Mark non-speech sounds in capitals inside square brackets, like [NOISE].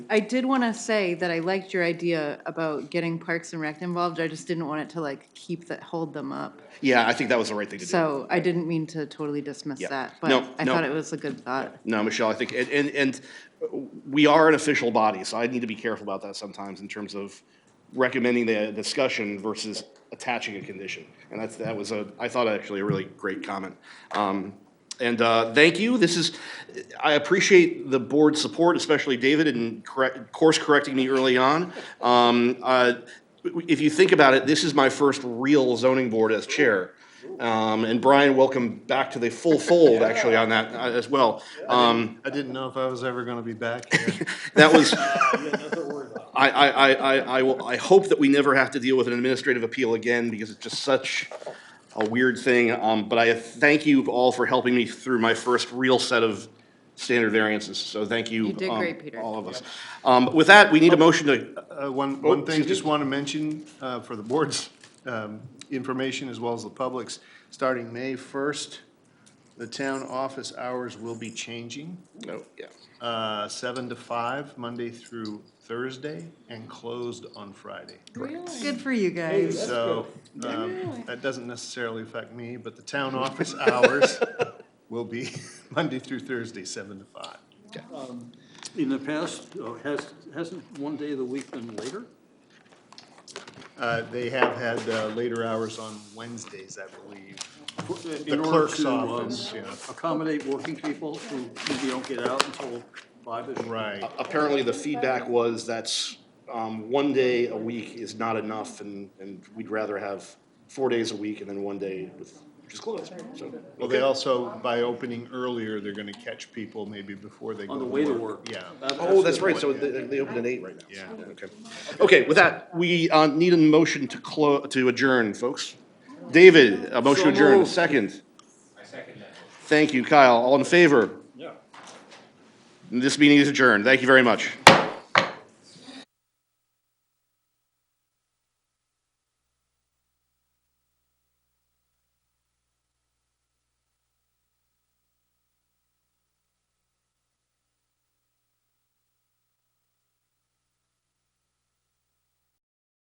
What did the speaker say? I did want to say that I liked your idea about getting Parks and Rec involved. I just didn't want it to like keep that, hold them up. Yeah, I think that was the right thing to do. So I didn't mean to totally dismiss Yeah. that, No, but I no. thought it was a good thought. No, Michelle, I think, and, and, and we are an official body, so I need to be careful about that sometimes in terms of recommending the discussion versus attaching a condition. And that's, that was a, I thought actually a really great comment. Um, and, uh, thank you. This is, I appreciate the board's support, especially David and correct, course correcting me early on. Um, uh, if you think about it, this is my first real zoning board as chair. Um, and Brian, welcome back to the full fold actually on that uh, as well. Um, I didn't know if I was ever gonna be back [LAUGHS] here. that was. I, I, I, I, I, will- I hope that we never have to deal with an administrative appeal again because it's just such a weird thing. Um, but I thank you all for helping me through my first real set of standard variances. So thank you. You did um, great, Peter. All of us. Um, with that, we need a motion to, Uh, one, one Oh, thing, excuse just me. wanna mention, uh, for the board's, um, information as well as the public's, starting May first, the town office hours will be changing, no, oh, yeah. uh, seven to five, Monday through Thursday, and closed on Friday. Oh, Good for you guys. So, um, that doesn't necessarily affect me, but the town office [LAUGHS] hours will be [LAUGHS] Monday through Thursday, seven to five. In the past, uh, has, hasn't one day of the week been later? Uh, They have had uh, later hours on Wednesdays, I believe. uh, In order clerk's to, um, office, yeah. Accommodate working people who maybe don't get out until five-ish. Right. Apparently, the feedback was that's, um, one day a week is not enough and, and we'd rather have four days a week and then one day with, which is closed. So, Well, they also, by opening earlier, they're gonna catch people maybe before they go On to the way to work. work. Uh, Yeah. That- Oh, that's the right, point. so they, they open at eight right now. Yeah. Okay, okay, with that, we, uh, need a motion to clo, to adjourn, folks. David, a motion to So adjourn, moved. second. I second that. Thank you, Kyle, all in favor? Yeah. This meeting is adjourned, thank you very much.